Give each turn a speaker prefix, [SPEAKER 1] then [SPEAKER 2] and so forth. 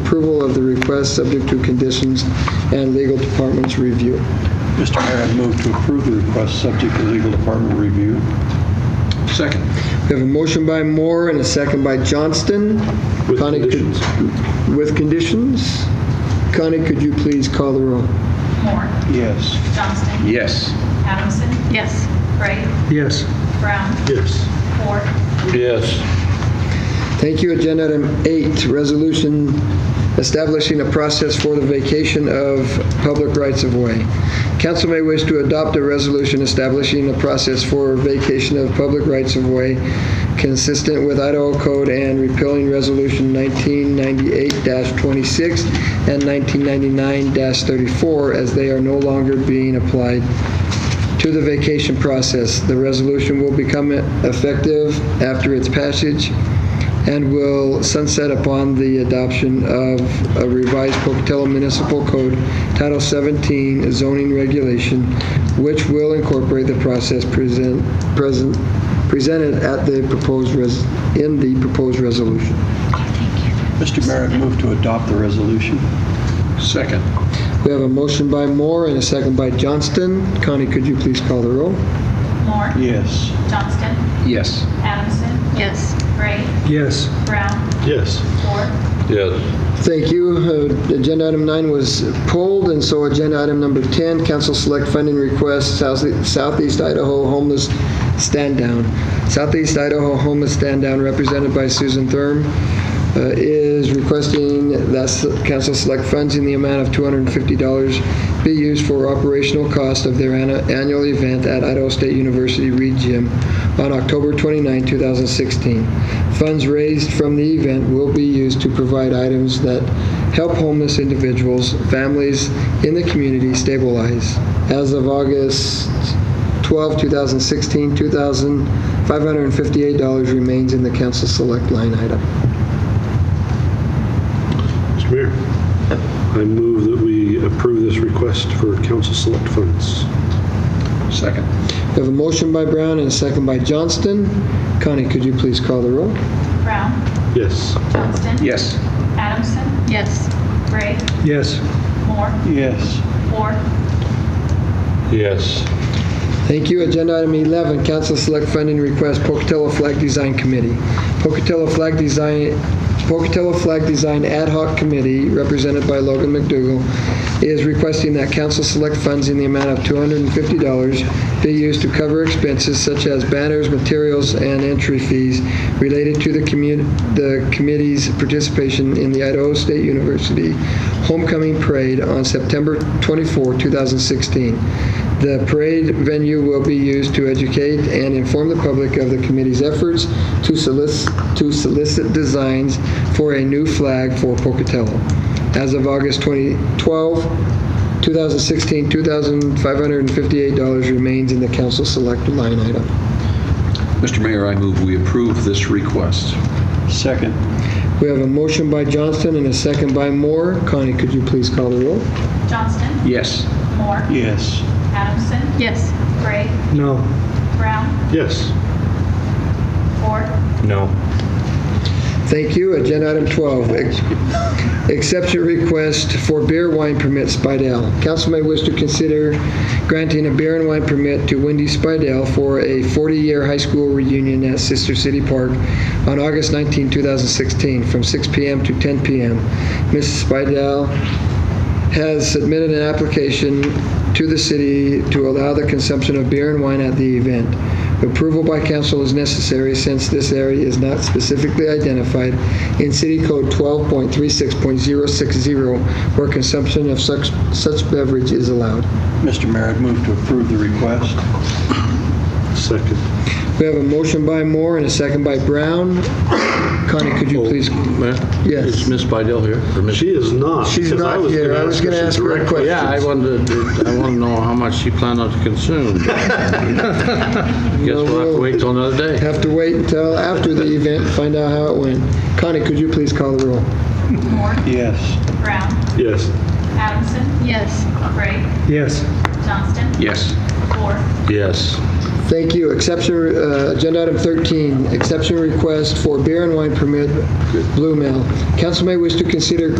[SPEAKER 1] approval of the request, subject to conditions and legal department's review.
[SPEAKER 2] Mr. Mayor, I move to approve the request subject to legal department review.
[SPEAKER 3] Second.
[SPEAKER 1] We have a motion by Moore and a second by Johnston.
[SPEAKER 3] With
[SPEAKER 1] Connie, could-
[SPEAKER 3] conditions.
[SPEAKER 1] With conditions. Connie, could you please call the roll?
[SPEAKER 4] Moore.
[SPEAKER 2] Yes.
[SPEAKER 4] Johnston.
[SPEAKER 3] Yes.
[SPEAKER 4] Adamson. Yes. Gray.
[SPEAKER 3] Yes.
[SPEAKER 4] Brown.
[SPEAKER 3] Yes.
[SPEAKER 4] Ford.
[SPEAKER 2] Yes.
[SPEAKER 1] Thank you. Agenda item eight, resolution establishing a process for the vacation of public rights of way. Council may wish to adopt a resolution establishing a process for vacation of public rights of way consistent with Idaho Code and repealing Resolution 1998-26 and 1999-34 as they are no longer being applied to the vacation process. The resolution will become effective after its passage and will sunset upon the adoption of a revised Pocatello Municipal Code, Title 17 zoning regulation, which will incorporate the process present, present, presented at the proposed, res- in the proposed resolution.
[SPEAKER 2] Mr. Mayor, I move to adopt the resolution.
[SPEAKER 3] Second.
[SPEAKER 1] We have a motion by Moore and a second by Johnston. Connie, could you please call the roll?
[SPEAKER 4] Moore.
[SPEAKER 2] Yes.
[SPEAKER 4] Johnston.
[SPEAKER 3] Yes.
[SPEAKER 4] Adamson. Yes. Gray.
[SPEAKER 3] Yes.
[SPEAKER 4] Brown.
[SPEAKER 3] Yes.
[SPEAKER 4] Ford.
[SPEAKER 3] Yes.
[SPEAKER 1] Thank you. Uh, Agenda item nine was pulled, and so agenda item number 10, council select funding request, South- Southeast Idaho homeless stand down. Southeast Idaho homeless stand down, represented by Susan Thurm, uh, is requesting that s- council select funds in the amount of $250 be used for operational cost of their anna- annual event at Idaho State University Reed Gym on October 29, 2016. Funds raised from the event will be used to provide items that help homeless individuals, families in the community stabilize. As of August 12, 2016, $2,558 remains in the council select line item.
[SPEAKER 5] Mr. Mayor, I move that we approve this request for council select funds.
[SPEAKER 3] Second.
[SPEAKER 1] We have a motion by Brown and a second by Johnston. Connie, could you please call the roll?
[SPEAKER 4] Brown.
[SPEAKER 5] Yes.
[SPEAKER 4] Johnston.
[SPEAKER 3] Yes.
[SPEAKER 4] Adamson. Yes. Gray.
[SPEAKER 5] Yes.
[SPEAKER 4] Moore.
[SPEAKER 2] Yes.
[SPEAKER 4] Ford.
[SPEAKER 5] Yes.
[SPEAKER 1] Thank you. Agenda item 11, council select funding request, Pocatello Flag Design Committee. Pocatello Flag Design, Pocatello Flag Design Ad Hoc Committee, represented by Logan McDougal, is requesting that council select funds in the amount of $250 be used to cover expenses such as banners, materials, and entry fees related to the commu- the committee's participation in the Idaho State University Homecoming Parade on September 24, 2016. The parade venue will be used to educate and inform the public of the committee's efforts to solicit, to solicit designs for a new flag for Pocatello. As of August 2012, 2016, $2,558 remains in the council select line item.
[SPEAKER 3] Mr. Mayor, I move we approve this request.
[SPEAKER 2] Second.
[SPEAKER 1] We have a motion by Johnston and a second by Moore. Connie, could you please call the roll?
[SPEAKER 4] Johnston.
[SPEAKER 3] Yes.
[SPEAKER 4] Moore.
[SPEAKER 2] Yes.
[SPEAKER 4] Adamson.
[SPEAKER 6] Yes.
[SPEAKER 4] Gray.
[SPEAKER 5] No.
[SPEAKER 4] Brown.
[SPEAKER 5] Yes.
[SPEAKER 4] Ford.
[SPEAKER 5] No.
[SPEAKER 1] Thank you. Agenda item 12, ex- exception request for beer wine permit Spidell. Council may wish to consider granting a beer and wine permit to Wendy Spidell for a 40-year high school reunion at Sister City Park on August 19, 2016, from 6 p.m. to 10 p.m. Mrs. Spidell has submitted an application to the city to allow the consumption of beer and wine at the event. Approval by council is necessary since this area is not specifically identified in City Code 12.36.060 where consumption of such, such beverage is allowed.
[SPEAKER 2] Mr. Mayor, I move to approve the request.
[SPEAKER 5] Second.
[SPEAKER 1] We have a motion by Moore and a second by Brown. Connie, could you please? Yes.
[SPEAKER 3] Is Ms. Bydell here? Or Ms.
[SPEAKER 5] She is not.
[SPEAKER 1] She's
[SPEAKER 5] because
[SPEAKER 1] not
[SPEAKER 5] was
[SPEAKER 1] here.
[SPEAKER 5] gonna
[SPEAKER 1] I was gonna ask her a
[SPEAKER 5] directly.
[SPEAKER 1] question.
[SPEAKER 7] Yeah, I wanted, to- I want to know how much you plan on to consume. Guess we'll have to wait till another day.
[SPEAKER 1] Have to wait until after the event, to find out how it went. Connie, could you please call the roll?
[SPEAKER 4] Moore.
[SPEAKER 2] Yes.
[SPEAKER 4] Brown.
[SPEAKER 5] Yes.
[SPEAKER 4] Adamson.
[SPEAKER 6] Yes.
[SPEAKER 4] Gray.
[SPEAKER 5] Yes.
[SPEAKER 4] Johnston.
[SPEAKER 3] Yes.
[SPEAKER 4] Ford.
[SPEAKER 7] Yes.
[SPEAKER 1] Thank you. Exception, uh, agenda item 13, exception request for beer and wine permit, Blue Mill. Council may wish to consider